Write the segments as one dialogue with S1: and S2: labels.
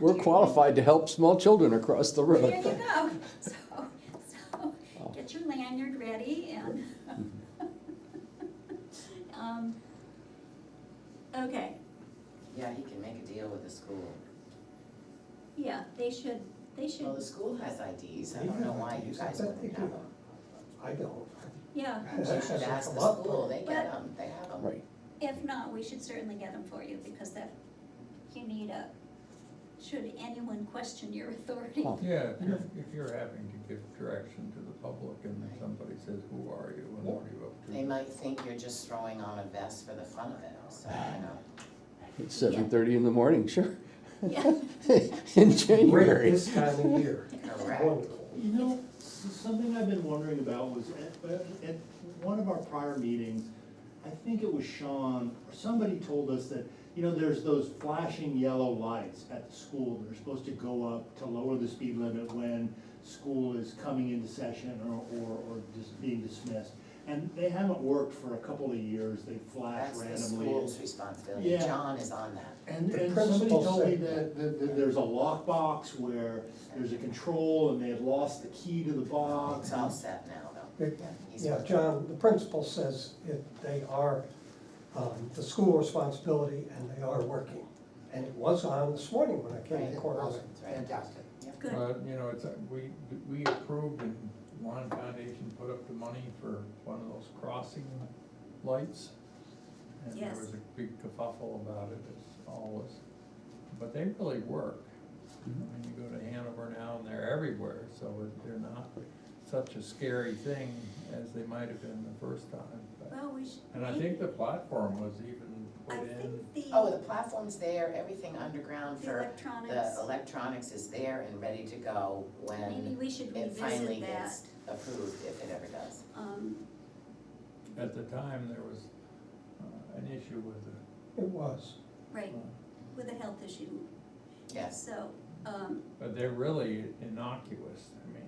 S1: we're qualified to help small children across the
S2: There you
S1: road.
S2: go. So, so,
S3: Oh.
S2: get your lanyard ready and.
S3: Mm-hmm.
S2: Um, Okay,
S3: Yeah, he can make a deal with the school.
S2: yeah, they should, they
S3: Well, the
S2: should,
S3: school has IDs, I
S4: They
S3: don't know
S4: have
S3: why you
S4: IDs.
S3: guys
S4: I
S3: wouldn't
S4: think
S3: have
S4: they do.
S3: them.
S4: I don't.
S2: yeah.
S3: You should ask the school, they get
S2: But-
S3: them, they have them.
S1: Right,
S2: If not, we should certainly get them for you because that, you need a, should anyone question your authority?
S1: Oh.
S5: Yeah, if you're, if you're having to give direction to the public and then somebody says, who are you and what are you up to?
S3: They might think you're just throwing on a vest for the fun of it, so, you know.
S1: it's seven thirty in the morning, sure.
S2: Yeah.
S1: In
S4: Great,
S1: January.
S4: this time of year.
S3: Correct.
S4: Wonderful.
S6: You know, s- something I've been wondering about was at, at one of our prior meetings, I think it was Sean, or somebody told us that, you know, there's those flashing yellow lights at the school. that are supposed to go up to lower the speed limit when school is coming into session or, or, or just being dismissed. And they haven't worked for a couple of years. They flash
S3: That's the
S6: randomly.
S3: school's responsibility,
S6: Yeah.
S3: John is on that.
S6: And,
S4: The
S6: and somebody
S4: principal
S6: told me
S4: said
S6: that, that, that there's a lockbox where there's a control and they had lost the key to the box.
S3: It's all set now, though.
S4: They-
S3: He's
S4: Yeah, John, the principal says it, they are, um, the school responsibility and they are working. And it was on this morning when I came
S3: Right,
S4: to Cornell.
S3: awesome, right.
S7: Fantastic.
S3: Yep.
S2: Good.
S5: But, you know, it's, uh, we, we approved and Lon Foundation put up the money for one of those crossing lights. And there
S2: Yes.
S5: was a big kerfuffle about it, as always, but they really work. I
S3: Mm-hmm.
S5: mean, you go to Hanover now and they're everywhere, so they're not such a scary thing as they might have been the first time. but-
S2: Well, we should.
S5: And I think the platform was even
S2: I
S5: put in,
S2: think the.
S3: Oh, the platform's there, everything underground
S2: The
S3: for,
S2: electronics.
S3: the electronics is there and ready to go
S2: Maybe
S3: when
S2: we should
S3: it finally
S2: revisit that.
S3: gets approved, if it ever does.
S2: Um,
S5: at the time, there was uh, an issue with the,
S4: It was.
S2: right,
S5: uh,
S2: with a health issue.
S3: Yes,
S2: So, um,
S5: but they're really innocuous, I mean.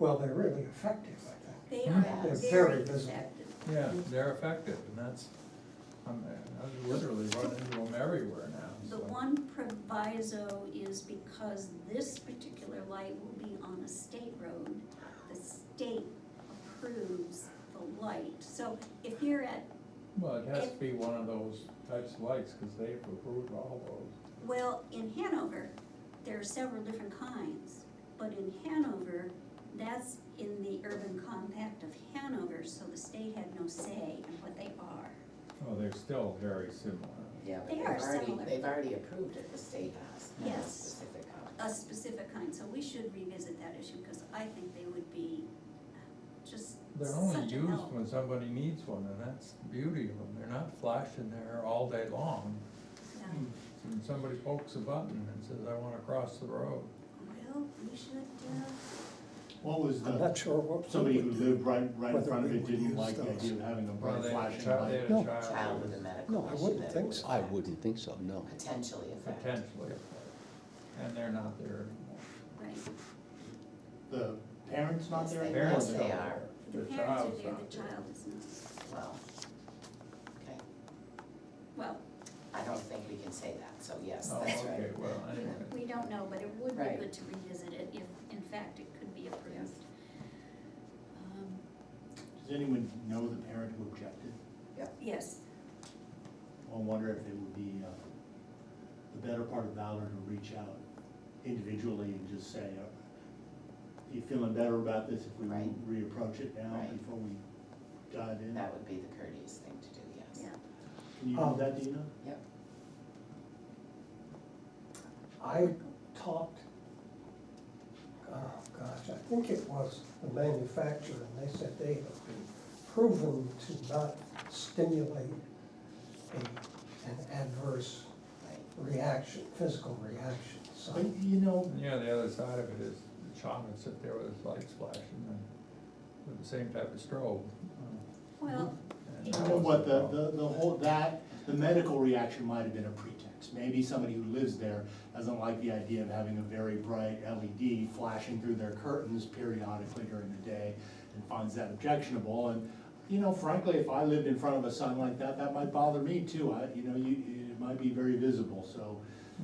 S4: Well, they're really effective, I think.
S2: they
S5: Hmm.
S2: are
S4: Mm-hmm. They're
S2: very
S4: very visible.
S2: effective.
S5: Yeah, they're effective, and that's, I'm, I literally run into them everywhere now,
S2: The
S5: so.
S2: one proviso is because this particular light will be on a state road, the state approves the light. So if you're at,
S5: Well, it has to be one of those types of lights, cause they've approved all those.
S2: well, in Hanover, there are several different kinds, but in Hanover, that's in the urban compact of Hanover, so the state had no say in what they are.
S5: Oh, they're still very similar.
S3: yeah, but
S2: They
S3: they've
S2: are
S3: already,
S2: similar.
S3: they've already approved it, the state has, not a
S2: Yes.
S3: specific um, house.
S2: a specific kind, so we should revisit that issue, because I think they would be just
S5: They're only
S2: such a
S5: used
S2: help.
S5: when somebody needs one, and that's the beauty of them, they're not flashing there all day long.
S2: Yeah.
S5: And somebody pokes a button and says, I wanna cross the road.
S2: Well, we should, uh,
S6: What was
S4: I'm
S6: the,
S4: not sure what.
S6: somebody who lived right, right in
S4: whether
S6: front of
S4: we
S6: it
S4: would
S6: didn't
S4: use
S6: like the
S4: those.
S6: idea of having a
S5: Well,
S6: bright
S5: they had a
S6: flashing
S5: child, they
S6: light.
S5: had a
S1: No.
S2: Uh,
S3: Child with a
S5: child,
S3: medical
S1: No, I
S3: issue
S1: wouldn't
S3: that
S4: think
S3: would
S4: so.
S1: I
S3: affect-
S1: wouldn't think so, no.
S3: Potentially affect.
S5: potentially, and they're not there anymore.
S2: right,
S6: The parents not there?
S3: Yes,
S5: Parents
S3: they
S5: don't
S3: are.
S5: care.
S2: the
S5: The
S2: parents
S5: child's
S2: are there,
S5: not
S2: the child is not,
S3: Well, okay,
S2: well,
S3: I don't think we can say that, so yes,
S5: Oh,
S3: that's right.
S5: okay, well, anyway.
S2: we don't know, but it would be
S3: Right.
S2: good to revisit it if, in fact, it could be approved. Um,
S6: Does anyone know the parent who objected?
S2: Yes,
S6: I wonder if it would be, uh, the better part of Valor to reach out individually and just say, uh, you feeling better about this if we
S3: Right.
S6: reapproach it now
S3: Right.
S6: before we dive in?
S3: That would be the courteous thing to do, yes.
S2: yeah,
S6: Can you do
S4: Um,
S6: Oh, that, Dina?
S3: Yep,
S4: I talked, oh gosh, I think it was the manufacturer, and they said they have been proven to not stimulate a, an adverse
S3: right.
S4: reaction, physical reaction, so.
S6: But, Oh, you know,
S5: Yeah, the other side of it is the shaman would sit there with his lights flashing and with the same type of strobe. Uh,
S2: well,
S5: and
S2: You
S5: that
S6: You know
S5: was
S6: what, the,
S5: problem.
S6: the, the whole, that, the medical reaction might have been a pretext. Maybe somebody who lives there doesn't like the idea of having a very bright LED flashing through their curtains periodically during the day and finds that objectionable. And, you know, frankly, if I lived in front of a sign like that, that might bother me too. I, you know, you, it might be very visible, so